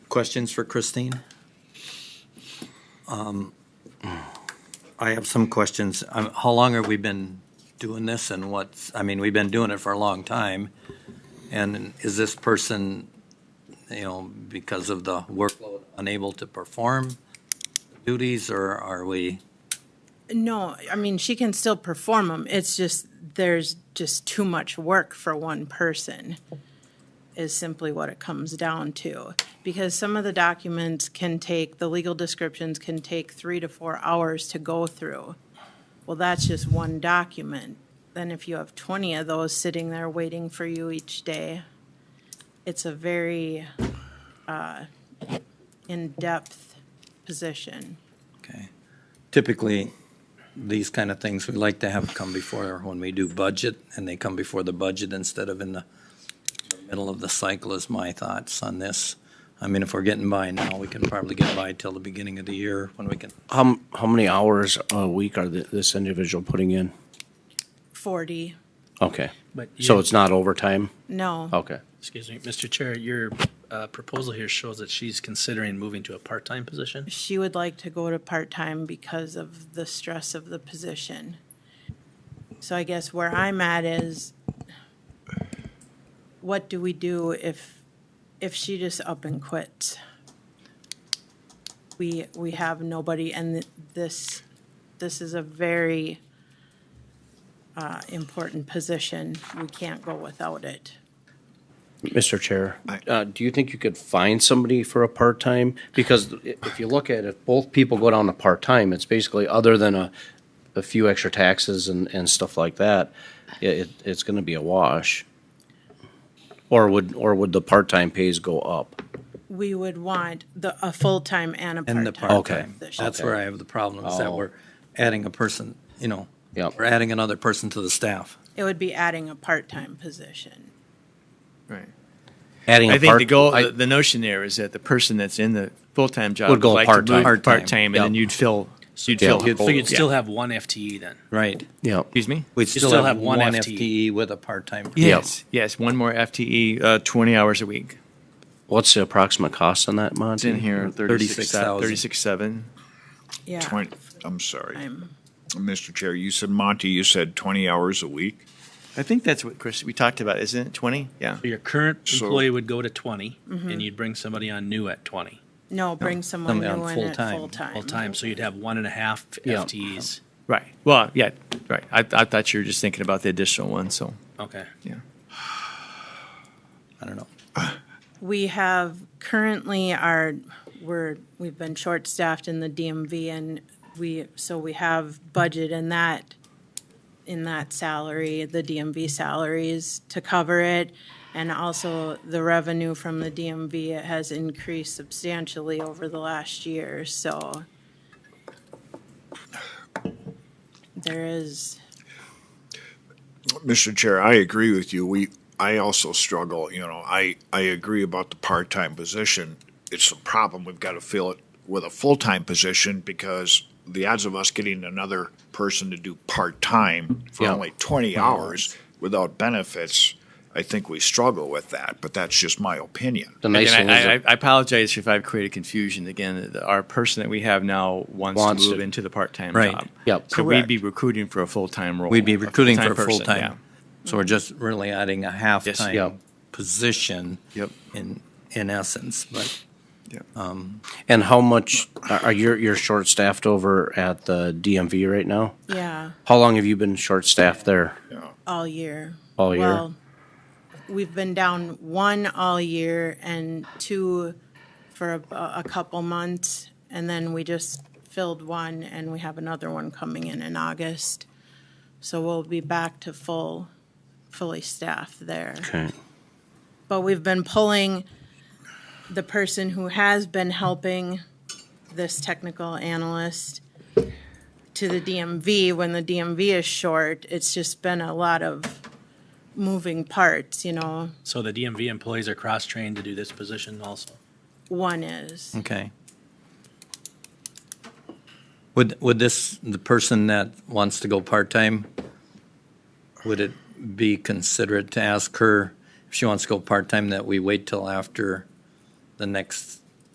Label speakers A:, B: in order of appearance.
A: Questions for Christine? Um, I have some questions. Um, How long have we been doing this and what's, I mean, we've been doing it for a long time. And is this person, you know, because of the workload, unable to perform duties or are we?
B: No, I mean, she can still perform them. It's just, there's just too much work for one person is simply what it comes down to. Because some of the documents can take, the legal descriptions can take three to four hours to go through. Well, that's just one document. Then if you have twenty of those sitting there waiting for you each day, it's a very, uh, in-depth position.
A: Okay. Typically, these kind of things, we like to have come before when we do budget, and they come before the budget instead of in the middle of the cycle is my thoughts on this. I mean, if we're getting by now, we can probably get by till the beginning of the year when we can,
C: How, m- how many hours a week are thi- this individual putting in?
B: Forty,
C: Okay.
D: But
C: So
D: you-
C: it's not overtime?
B: no.
C: Okay.
D: Excuse me, Mr. Chair, your uh, proposal here shows that she's considering moving to a part-time position.
B: She would like to go to part-time because of the stress of the position. So I guess where I'm at is, what do we do if, if she just up and quits? We, we have nobody, and th- this, this is a very uh, important position. We can't go without it.
C: Mr. Chair, uh, do you think you could find somebody for a part-time? Because i- if you look at it, both people go down to part-time, it's basically, other than a, a few extra taxes and, and stuff like that, i- it, it's gonna be a wash. Or would, or would the part-time pays go up?
B: We would want the, a full-time and a
A: in the
B: part-time
A: part-time.
B: position.
A: That's where I have the problem, is that
C: Oh.
A: we're adding a person, you know,
C: Yep.
A: we're adding another person to the staff.
B: It would be adding a part-time position.
E: Right.
C: Adding a
E: I
C: part.
E: think the goal,
C: I-
E: the, the notion there is that the person that's in the full-time job
C: Would go
E: like to move
C: part-time.
E: part-time,
C: Part-time,
E: and then
C: yeah.
E: you'd fill, you'd
C: Yeah.
E: fill.
C: So
D: So you'd
E: yeah.
D: still have one FTE then.
A: Right.
C: Yeah.
E: Excuse me.
A: We'd still have one
D: FTE.
A: FTE with a part-time.
E: Yes. Yes. One more FTE, uh, twenty hours a week.
C: What's the approximate cost on that, Monty?
E: It's in here.
A: 36,000.
E: Thirty-six seven.
B: Yeah.
F: Twenty, I'm sorry,
B: I'm-
F: Mr. Chair, you said, Monty, you said twenty hours a week?
E: I think that's what Chris we talked about, isn't it? Twenty. Yeah.
D: So Your current
F: So-
D: employee would go to twenty, and you'd bring somebody on new at twenty
B: No, bring someone
A: Somebody on
B: new in at
A: full-time,
B: full-time.
D: full-time, so you'd have one and a half
C: Yeah.
D: FTEs.
E: Right. Well, yeah. Right. I, I thought you were just thinking about the additional one. So
D: Okay.
E: yeah.
A: I don't know.
B: We have currently our, we're, we've been short-staffed in the DMV and we, so we have budget in that, in that salary, the DMV salaries to cover it. And also the revenue from the DMV has increased substantially over the last year, so. There is,
F: Mr. Chair, I agree with you. We, I also struggle, you know, I, I agree about the part-time position. It's a problem. We've got to fill it with a full-time position because the odds of us getting another person to do part-time for
C: Yeah. Mm-hmm.
F: only twenty hours without benefits, I think we struggle with that, but that's just my opinion.
C: The nice thing
E: Again, I,
C: is,
E: I, I apologize if I've created confusion. Again, the- our person that we have now wants,
C: Wants
E: to move
C: to-
E: into the part-time
A: Right.
E: job.
C: Yep.
E: So
C: Correct.
E: we'd be recruiting for a full-time role.
A: We'd be recruiting for a
E: person,
A: full-time. So we're just really adding a
C: Yep.
A: half-time position.
E: Yep.
A: In, in essence, but
E: Yeah. yeah.
C: and how much, are are you, you're short-staffed over at the DMV right now?
B: yeah.
C: How long have you been short-staffed there?
B: All year.
C: All year?
B: Well, We've been down one all year and two for a, a couple months. And then we just filled one and we have another one coming in in August. So we'll be back to full, fully staffed there.
C: Okay.
B: But we've been pulling the person who has been helping this technical analyst to the DMV when the DMV is short. It's just been a lot of moving parts, you know.
D: So the DMV employees are cross-trained to do this position also.
B: One is,
A: okay. Would, would this, the person that wants to go part-time, would it be considerate to ask her if she wants to go part-time that we wait till after the next